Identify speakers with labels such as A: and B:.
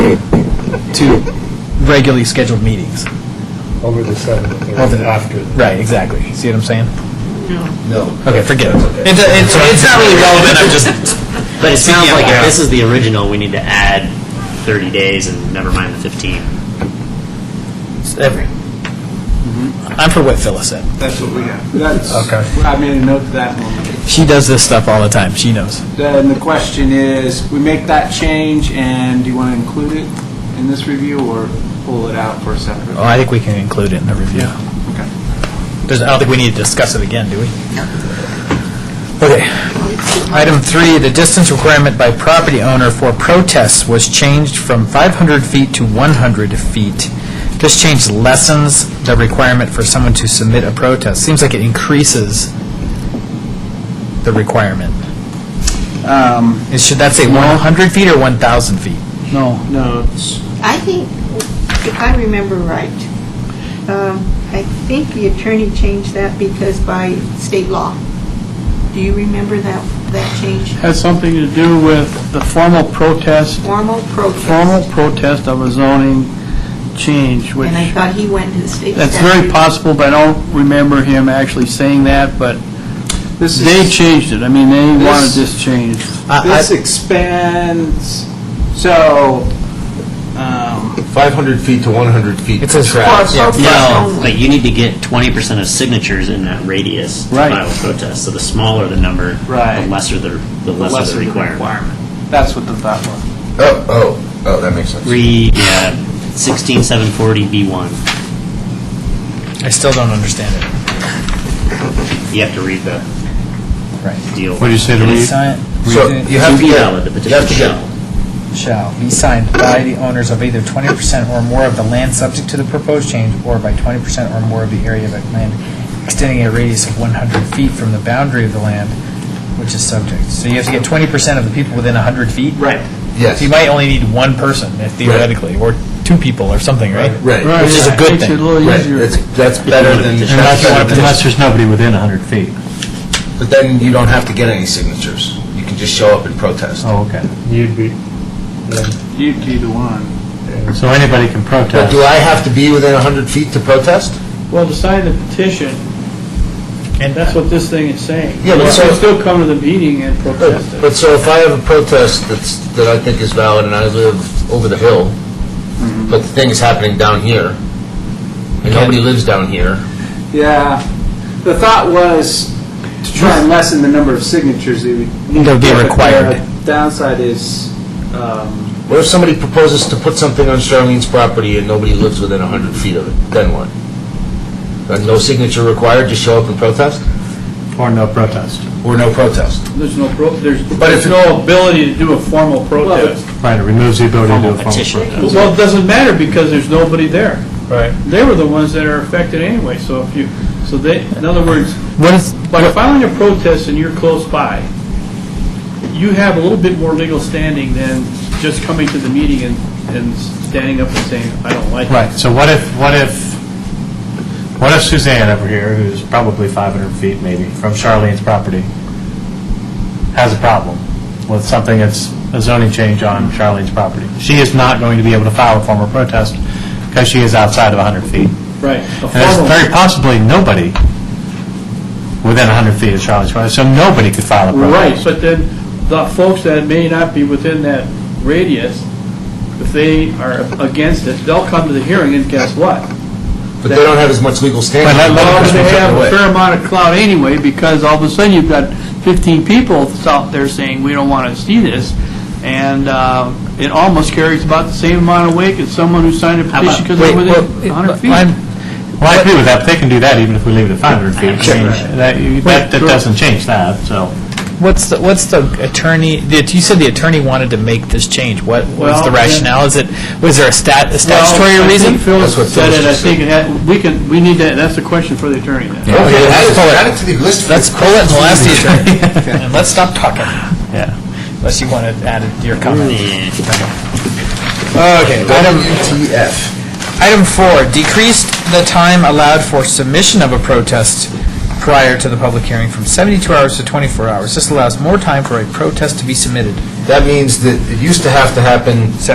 A: to regularly scheduled meetings.
B: over the 7th
A: Over
B: or
A: the-
B: after.
A: Right, exactly. See what I'm saying?
B: No.
A: Okay, forget it. It- It's, it's not really relevant, I'm just,
C: But it sounds
A: Yeah,
C: like
A: yeah.
C: if this is the original, we need to add 30 days and never mind the 15.
A: I'm for what Phyllis said.
D: That's what we have. That's,
B: Okay.
D: I made a note to that one.
A: She does this stuff all the time, she knows.
D: Then the question is, we make that change, and do you want to include it in this review, or pull it out for a separate?
A: Oh, I think we can include it in the review.
D: Okay.
A: There's, I don't think we need to discuss it again, do we? Okay. Item three, the distance requirement by property owner for protests was changed from 500 feet to 100 feet. This change lessens the requirement for someone to submit a protest. Seems like it increases the requirement. Is- Should that say 100 feet or 1,000 feet?
D: No. No, it's
E: I think, if I remember right, um, I think the attorney changed that because by state law. Do you remember that, that change?
F: Has something to do with the formal protest,
E: Formal protest.
F: formal protest of a zoning change, which,
E: And I thought he went to the state
F: that's very
E: statute.
F: possible, but I don't remember him actually saying that, but
D: This is-
F: they changed it. I mean, they wanted
D: This-
F: this changed.
A: I- I-
D: This expands, so, um,
B: 500 feet to 100 feet.
A: It says
B: track.
E: For protest
C: No,
E: only.
C: but you need to get 20% of signatures in that radius to
F: Right.
C: file a protest. So the smaller the number, the
D: Right.
C: lesser the, the
D: the
C: lesser
D: lesser
C: the
D: the
C: requirement.
D: requirement. That's what the thought was.
B: Oh, oh, oh, that makes sense.
C: Read uh, 16740B1.
A: I still don't understand it.
C: You have to read the
A: Right.
C: deal.
G: What do you say to
C: It is-
G: read?
A: Sign-
B: So
A: read it.
B: you have to
C: be
B: get-
C: valid, the
B: you have
C: petition
B: to get-
C: shall.
A: shall be signed by the owners of either 20% or more of the land subject to the proposed change, or by 20% or more of the area of land extending a radius of 100 feet from the boundary of the land which is subject. So you have to get 20% of the people within 100 feet?
D: Right.
B: Yes.
A: So you might only need one person theoretically, or two people or something, right?
B: Right,
A: Which is a good
F: Makes it a
A: thing.
F: little
B: right.
F: easier.
B: That's, that's better than,
G: Unless,
B: but
G: unless there's nobody within 100 feet.
B: then you don't have to get any signatures. You can just show up and protest.
G: Oh, okay.
H: You'd be,
D: You'd be the one.
G: So anybody can
B: But
G: protest.
B: do I have to be within 100 feet to protest?
F: Well, to sign the petition,
A: And
F: that's what this thing is saying.
B: Yeah, but
F: You
B: so-
F: can still come to the meeting and protest it.
B: But so if I have a protest that's, that I think is valid and I live over the hill, but the thing is happening down here, and nobody lives down here,
D: Yeah. The thought was to try and lessen the number of signatures that would need.
A: That would be
D: to- but the
A: required.
D: Downside is, um,
B: what if somebody proposes to put something on Charlene's property and nobody lives within 100 feet of it? Then what? Uh, No signature required, just show up and protest?
G: Or no protest.
B: Or no protest?
F: There's no, pro- there's
B: But if-
F: there's no ability to do a formal protest.
G: Right, it removes the ability to do a formal
C: Petition.
G: protest.
F: Well, it doesn't matter because there's nobody there.
A: Right.
F: They were the ones that are affected anyway, so if you, so they, in other words,
A: What is,
F: by filing a protest and you're close by, you have a little bit more legal standing than just coming to the meeting and, and standing up and saying, I don't like it.
G: Right, so what if, what if, what if Suzanne over here, who's probably 500 feet maybe from Charlene's property, has a problem with something that's a zoning change on Charlene's property? She is not going to be able to file a formal protest because she is outside of 100 feet.
F: Right. A
G: And there's
F: formal-
G: very possibly nobody within 100 feet of Charlene's property, so nobody could file a protest.
F: Right, but then the folks that may not be within that radius, if they are against it, they'll come to the hearing and guess what?
B: But they don't have as much legal standing.
G: But that-
F: Well,
B: Because we
F: they
B: took it
F: have
B: away.
F: a fair amount of clout anyway, because all of a sudden you've got 15 people out there saying, we don't want to see this, and uh, it almost carries about the same amount of weight as someone who signed a
C: How about-
F: petition because they're
A: wait,
F: within
A: well,
F: 100 feet.
A: I'm-
G: Well, I agree with that, but they can do that even if we leave it at 500 feet. I mean,
C: Sure.
G: That that- that doesn't change that, so.
A: What's the, what's the attorney, did- you said the attorney wanted to make this change. What was
F: Well,
A: the
F: yeah.
A: rationale? Is it, was there a stat, a statutory
F: Well,
A: reason?
F: I think Phil
B: That's what
F: said
B: Phyllis
F: it, I
B: just
F: think it had, we can, we need that, that's a question for the attorney then.
A: Yeah.
B: Okay,
A: Okay,
B: add
A: let's
B: it-
A: pull it.
B: add it to the list.
A: Let's pull it and we'll ask the attorney. And let's stop talking. Yeah. Unless you want to add your comment. Okay. Item,
B: WTF.
A: item four, decreased the time allowed for submission of a protest prior to the public hearing from 72 hours to 24 hours. This allows more time for a protest to be submitted.
B: That means that it used to have to happen